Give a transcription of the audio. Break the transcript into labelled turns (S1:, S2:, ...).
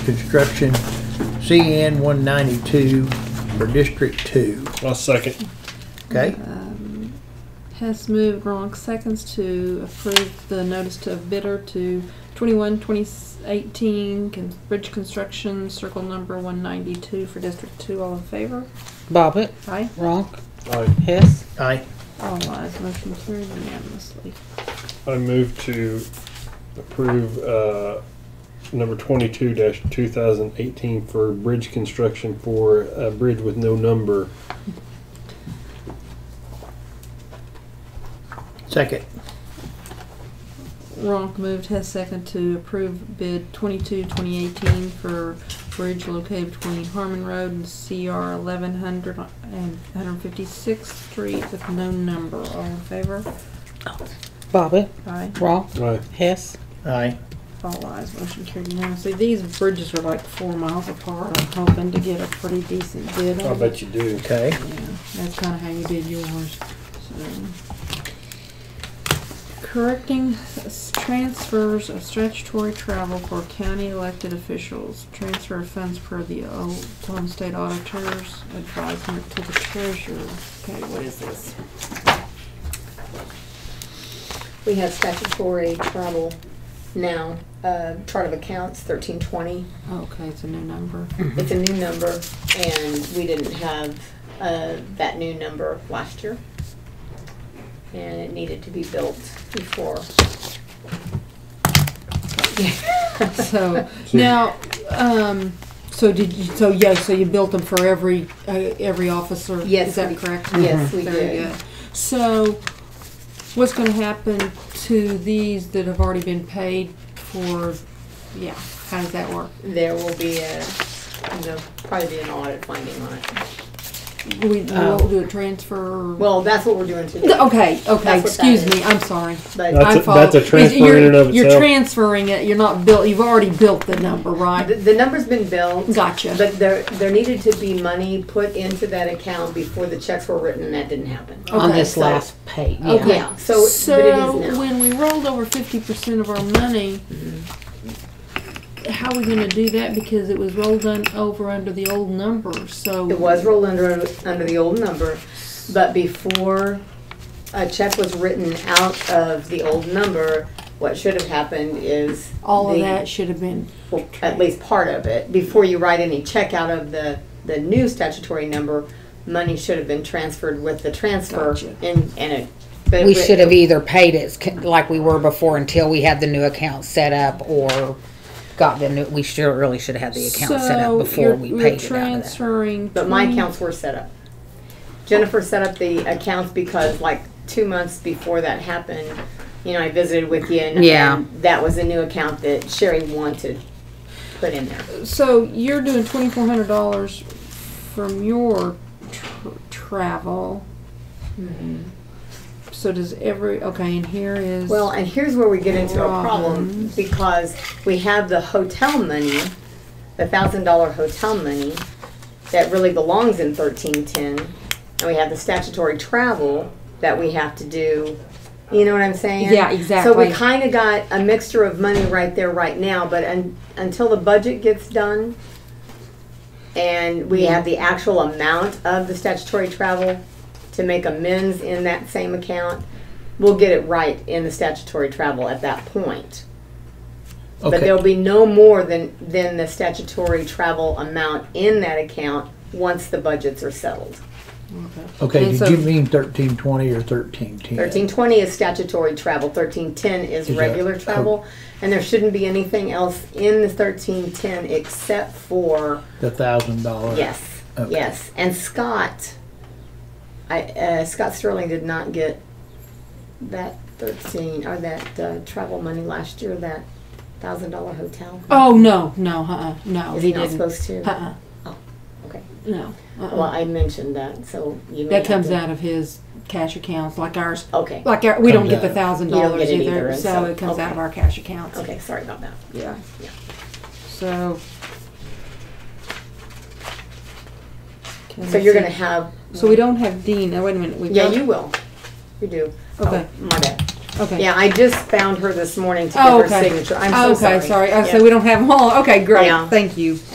S1: Construction CN 192 for District 2,
S2: I'll second.
S1: okay?
S3: Hess Um, moved, Ronk seconds to approve the notice to bidder to 21 2018 con- bridge construction, circle number 192 for District 2. All in favor?
S4: Bobbit,
S3: Aye.
S4: Ronk,
S2: I,
S4: Hess,
S1: Aye.
S3: All ayes. Motion carried unanimously.
S2: I move to approve uh, number 22 2018 for bridge construction for a bridge with no number.
S1: Second,
S3: Ronk moved, Hess second to approve bid 22 2018 for bridge located between Harmon Road and CR 1100 and 156th Street with no number. All in favor?
S4: Bobbit,
S3: Aye.
S4: Ronk,
S2: I,
S4: Hess,
S1: aye.
S3: All eyes motion carried unanimously. These bridges are like four miles apart. I'm hoping to get a pretty decent bid
S2: I
S3: on
S2: bet you do.
S1: Okay,
S3: Yeah, that's kinda how you did yours, so. Correcting s- transfers of statutory travel for county elected officials. Transfer of funds per the Oklahoma State Auditor's advisement to the treasurer. Okay, what is this?
S5: We have statutory travel now, uh, chart of accounts, thirteen twenty.
S3: Okay, it's a new number.
S5: It's a new number, and we didn't have, uh, that new number last year. And it needed to be built before.
S3: So now, um, so did you, so yeah, so you built them for every, uh, every officer?
S5: Yes,
S3: Is that
S5: we-
S3: correct?
S5: Yes, we
S3: Very
S5: did.
S3: good. So what's gonna happen to these that have already been paid for, yeah, how does that work?
S5: There will be a, there'll probably be an audit finding on it.
S3: Do we, we'll do a transfer? or-
S5: Um, Well, that's what we're doing today.
S3: Okay, okay,
S5: that
S3: excuse
S5: is.
S3: me, I'm sorry.
S5: But
S2: That's
S3: I
S2: a- that's a
S3: follow-
S2: transfer in
S3: you're-
S2: and of
S3: You're
S2: itself.
S3: transferring it, you're not built, you've already built the number,
S5: the,
S3: right?
S5: the number's been built.
S3: Gotcha.
S5: But there, there needed to be money put into that account before the checks were written, and that didn't happen.
S4: on
S3: Okay,
S4: this
S5: so-
S4: last page,
S3: Okay.
S4: yeah.
S5: Yeah, so,
S3: so
S5: but it is now.
S3: when we rolled over fifty percent of our money, how are we going to do that? Because it was rolled un- over under the old number. So
S5: It was rolled under, under the old number, but before a check was written out of the old number, what should have happened is.
S3: all of
S5: the-
S3: that should have been
S5: well, At least part of it, before you write any check out of the, the new statutory number, money should have been transferred with the transfer
S3: Gotcha.
S5: and, and it. but-
S4: We
S5: but-
S4: should have either paid it c- like we were before until we had the new account set up or got the new, we should, really should have had the account set
S3: So
S4: up before
S3: you're-
S4: we
S3: we're
S4: paid it out of that.
S3: transferring.
S5: But my
S3: 20
S5: accounts were set up. Jennifer set up the accounts because like two months before that happened, you know, I visited with you and.
S4: Yeah.
S5: and That was a new account that Sherry wanted put in there.
S3: So you're doing twenty four hundred dollars from your tr- travel.
S5: Mm-hmm.
S3: So does every okay? And here is
S5: Well, and here's where we get into a problem,
S3: Problems.
S5: because we have the hotel money, the thousand dollar hotel money, that really belongs in thirteen ten, and we have the statutory travel that we have to do, you know what I'm saying?
S3: Yeah,
S5: So we
S3: exactly.
S5: kinda got a mixture of money right there, right now, but un- until the budget gets done, and we have the actual amount of the statutory travel to make amends in that same account, we'll get it right in the statutory travel at that point. But
S1: Okay.
S5: there'll be no more than, than the statutory travel amount in that account once the budgets are settled.
S1: Okay,
S3: And
S1: did you
S3: so-
S1: mean 1320 or 1310?
S5: Thirteen twenty is statutory travel, thirteen ten is
S1: Is that-
S5: regular travel, and there shouldn't be anything else in the thirteen ten except for,
S1: The $1,000?
S5: yes,
S1: Okay.
S5: yes. And Scott, I, uh, Scott Sterling did not get that thirteen, or that, uh, travel money last year, that thousand dollar hotel.
S3: Oh no, no, uh, no,
S5: Is
S3: he
S5: he not
S3: didn't.
S5: supposed to?
S3: Uh-uh.
S5: Oh, okay.
S3: No. Uh-uh.
S5: Well, I mentioned that, so you may.
S3: That
S5: have
S3: comes
S5: to-
S3: out of his cash accounts, like ours.
S5: Okay,
S3: Like our, we don't
S1: Comes
S3: get the
S1: out.
S3: thousand
S5: You don't
S3: dollars
S5: get it either,
S3: either,
S5: and
S3: so
S5: so-
S3: it comes out of
S5: okay.
S3: our cash accounts.
S5: okay, sorry about that.
S3: Yeah.
S5: Yeah.
S3: So. Can
S5: So
S3: we
S5: you're
S3: see-
S5: gonna have,
S3: So we don't have Dean. Oh wait a minute. We've
S5: yeah,
S3: got-
S5: you will, you do. Oh,
S3: Okay.
S5: My bad.
S3: Okay.
S5: Yeah, I just found her this morning to give
S3: Oh,
S5: her
S3: okay.
S5: signature. I'm so sorry.
S3: Okay, sorry. Oh,
S5: Yeah.
S3: So we don't have them all. Okay, great.
S5: Yeah.
S3: Thank you.